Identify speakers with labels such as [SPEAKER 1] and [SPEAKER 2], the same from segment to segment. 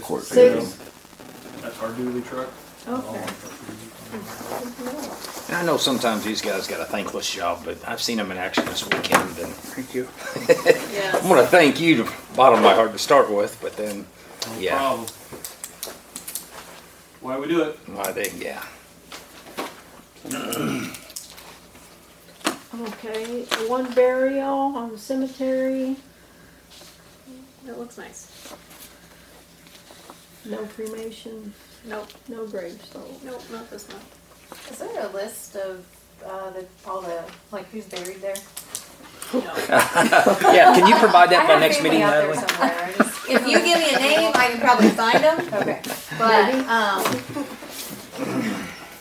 [SPEAKER 1] court
[SPEAKER 2] So-
[SPEAKER 1] payroll.
[SPEAKER 3] That's our duty truck.
[SPEAKER 2] Okay.
[SPEAKER 4] And I know sometimes these guys got a thankless job, but I've seen them in action this weekend, and
[SPEAKER 1] Thank you.
[SPEAKER 2] Yes.
[SPEAKER 4] I'm gonna thank you to bottom of my heart to start with, but then,
[SPEAKER 3] No
[SPEAKER 4] Yeah.
[SPEAKER 3] problem. Why we do it?
[SPEAKER 4] why they, yeah.
[SPEAKER 2] Okay, one burial on the cemetery,
[SPEAKER 5] That looks nice.
[SPEAKER 2] no cremation,
[SPEAKER 5] Nope,
[SPEAKER 2] no grave sold.
[SPEAKER 5] nope, not this one.
[SPEAKER 6] Is there a list of uh, the, all the like who's buried there?
[SPEAKER 4] Yeah, can you provide
[SPEAKER 6] I
[SPEAKER 4] that by
[SPEAKER 6] have
[SPEAKER 4] next
[SPEAKER 6] family
[SPEAKER 4] meeting,
[SPEAKER 6] out there
[SPEAKER 4] Natalie?
[SPEAKER 6] somewhere. I just- if you give me a name, I can probably find them.
[SPEAKER 5] Okay.
[SPEAKER 6] But um,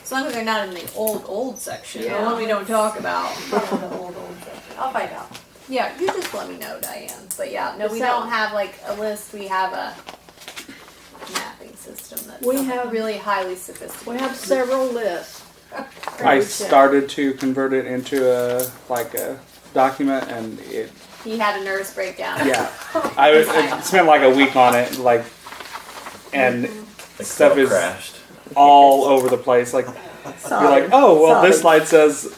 [SPEAKER 6] as long as they're not in the old old section, the one we don't talk about, you know, the old old section, I'll find out. Yeah, you just let me know, Diane. But yeah, no, we
[SPEAKER 2] So-
[SPEAKER 6] don't have like a list. We have a mapping system that's
[SPEAKER 2] We have-
[SPEAKER 6] really highly
[SPEAKER 2] We
[SPEAKER 6] sophisticated.
[SPEAKER 2] have several lists.
[SPEAKER 7] I started to convert it into a like a document, and it
[SPEAKER 6] he had a nervous breakdown.
[SPEAKER 7] yeah, I, was- I spent like a week on it, like, and
[SPEAKER 1] The
[SPEAKER 7] Stuff
[SPEAKER 1] club
[SPEAKER 7] is-
[SPEAKER 1] crashed.
[SPEAKER 7] all over the place. Like you're like, oh well, this line says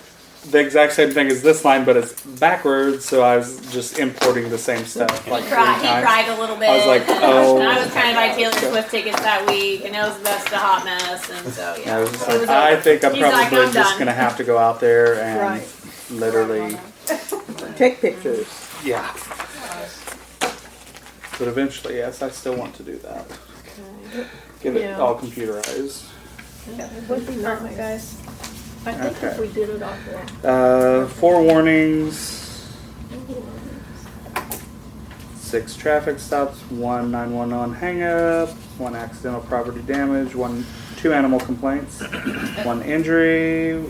[SPEAKER 7] the exact same thing as this line, but it's backwards. So I was just importing the same stuff. Like
[SPEAKER 6] He
[SPEAKER 7] three
[SPEAKER 6] cried, he
[SPEAKER 7] times.
[SPEAKER 6] cried a little bit.
[SPEAKER 7] I was like,
[SPEAKER 6] and
[SPEAKER 7] oh.
[SPEAKER 6] I was trying to buy Taylor Swift tickets that week, and it was just a hot mess. And so,
[SPEAKER 7] And I
[SPEAKER 6] yeah.
[SPEAKER 7] was just
[SPEAKER 6] It
[SPEAKER 7] like,
[SPEAKER 6] was
[SPEAKER 7] I
[SPEAKER 6] over.
[SPEAKER 7] think I'm
[SPEAKER 6] He's like,
[SPEAKER 7] probably
[SPEAKER 6] I'm
[SPEAKER 7] just
[SPEAKER 6] done.
[SPEAKER 7] gonna have to go out there and
[SPEAKER 2] Right.
[SPEAKER 7] literally,
[SPEAKER 8] Take pictures.
[SPEAKER 7] yeah. But eventually, yes, I still want to do that. Get it
[SPEAKER 2] Yeah.
[SPEAKER 7] all computerized.
[SPEAKER 2] It would be nice, guys. I think if
[SPEAKER 7] Okay.
[SPEAKER 2] we did it off the.
[SPEAKER 7] Uh, four warnings, six traffic stops, one 911 hangup, one accidental property damage, one two animal complaints, one injury,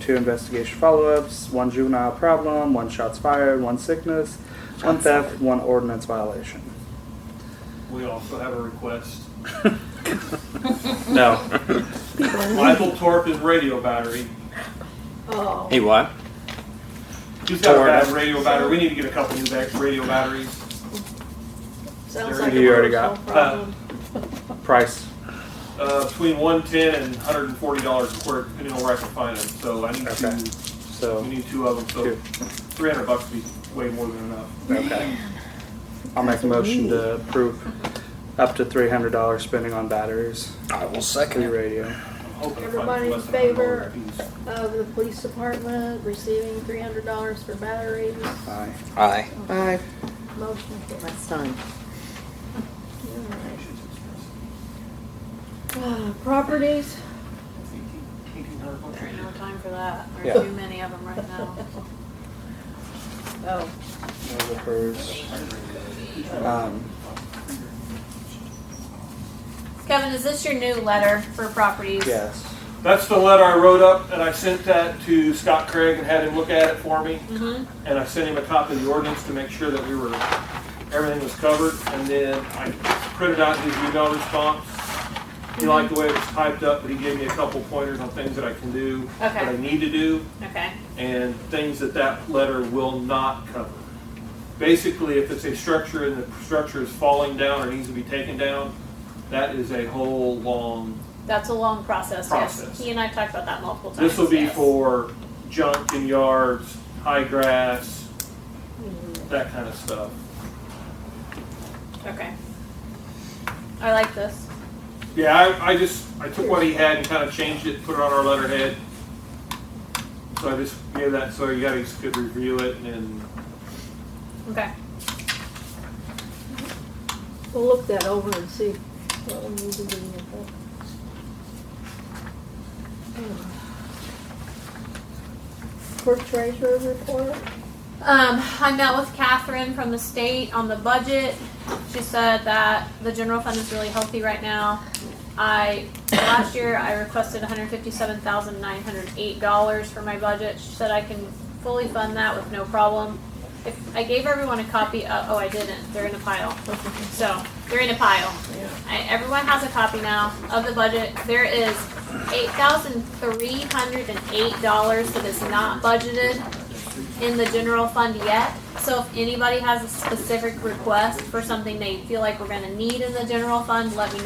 [SPEAKER 7] two investigation follow-ups, one juvenile problem, one shots fired, one sickness, one theft, one ordinance violation.
[SPEAKER 3] We also have a request.
[SPEAKER 7] No,
[SPEAKER 3] Michael Torp is radio battery.
[SPEAKER 2] Oh,
[SPEAKER 4] Hey, what?
[SPEAKER 3] He's got a
[SPEAKER 7] Torp.
[SPEAKER 3] bad radio battery. We need to get a couple new back radio batteries.
[SPEAKER 2] sounds
[SPEAKER 3] Who
[SPEAKER 2] like
[SPEAKER 7] do
[SPEAKER 2] a
[SPEAKER 7] you already
[SPEAKER 2] personal
[SPEAKER 7] got?
[SPEAKER 2] problem.
[SPEAKER 7] price.
[SPEAKER 3] Uh, between one ten and one hundred and forty dollars a quarter, depending on where I can find them. So I need
[SPEAKER 7] Okay.
[SPEAKER 3] two.
[SPEAKER 7] So
[SPEAKER 3] We need two of them. So
[SPEAKER 7] Two.
[SPEAKER 3] three hundred bucks would be way more than enough.
[SPEAKER 7] okay, I'll make a motion to approve up to three hundred dollars spending on batteries.
[SPEAKER 4] I will
[SPEAKER 7] Free
[SPEAKER 4] second.
[SPEAKER 7] radio.
[SPEAKER 3] I'm hoping to find
[SPEAKER 2] Everybody in
[SPEAKER 3] less than a hundred dollar
[SPEAKER 2] favor?
[SPEAKER 3] piece.
[SPEAKER 7] Uh,
[SPEAKER 2] Of the police department receiving three hundred dollars for batteries,
[SPEAKER 7] Aye.
[SPEAKER 4] Aye.
[SPEAKER 8] Aye.
[SPEAKER 2] motion carried.
[SPEAKER 8] Last time.
[SPEAKER 2] Uh, Properties,
[SPEAKER 3] Eighteen hundred bucks.
[SPEAKER 6] There ain't no time for that. There's
[SPEAKER 7] Yeah.
[SPEAKER 6] too many of them right now.
[SPEAKER 2] oh,
[SPEAKER 7] Those are hers. Um,
[SPEAKER 6] Kevin, is this your new letter for properties?
[SPEAKER 7] yes.
[SPEAKER 3] That's the letter I wrote up, and I sent that to Scott Craig and had him look at it for me.
[SPEAKER 6] Mhm.
[SPEAKER 3] And I sent him a copy of the ordinance to make sure that we were, everything was covered. And then I printed out his email response. He liked the way it was typed up, but he gave me a couple pointers on things that I can do, that I
[SPEAKER 6] Okay.
[SPEAKER 3] need to do,
[SPEAKER 6] Okay.
[SPEAKER 3] and things that that letter will not cover. Basically, if it's a structure and the structure is falling down or needs to be taken down, that is a whole long
[SPEAKER 6] That's a long process,
[SPEAKER 3] Process.
[SPEAKER 6] yes. He and I talked about that multiple times.
[SPEAKER 3] This will be
[SPEAKER 6] yes.
[SPEAKER 3] for junk and yards, high grass, that kind of stuff.
[SPEAKER 6] Okay. I like this.
[SPEAKER 3] Yeah, I, I just, I took what he had and kind of changed it, put it on our letterhead. So I just gave that, so you guys could review it and
[SPEAKER 6] Okay.
[SPEAKER 2] we'll look that over and see what we need to do with that. Clerk treasurer report?
[SPEAKER 6] Um, I met with Catherine from the state on the budget. She said that the general fund is really healthy right now. I, last year, I requested hundred fifty-seven thousand nine hundred eight dollars for my budget. She said I can fully fund that with no problem. If, I gave everyone a copy, uh, oh, I didn't, they're in a pile. So, they're in a pile. I, everyone has a copy now of the budget. There is eight thousand three hundred and eight dollars that is not budgeted in the general fund yet. So if anybody has a specific request for something they feel like we're gonna need in the general fund, let me know.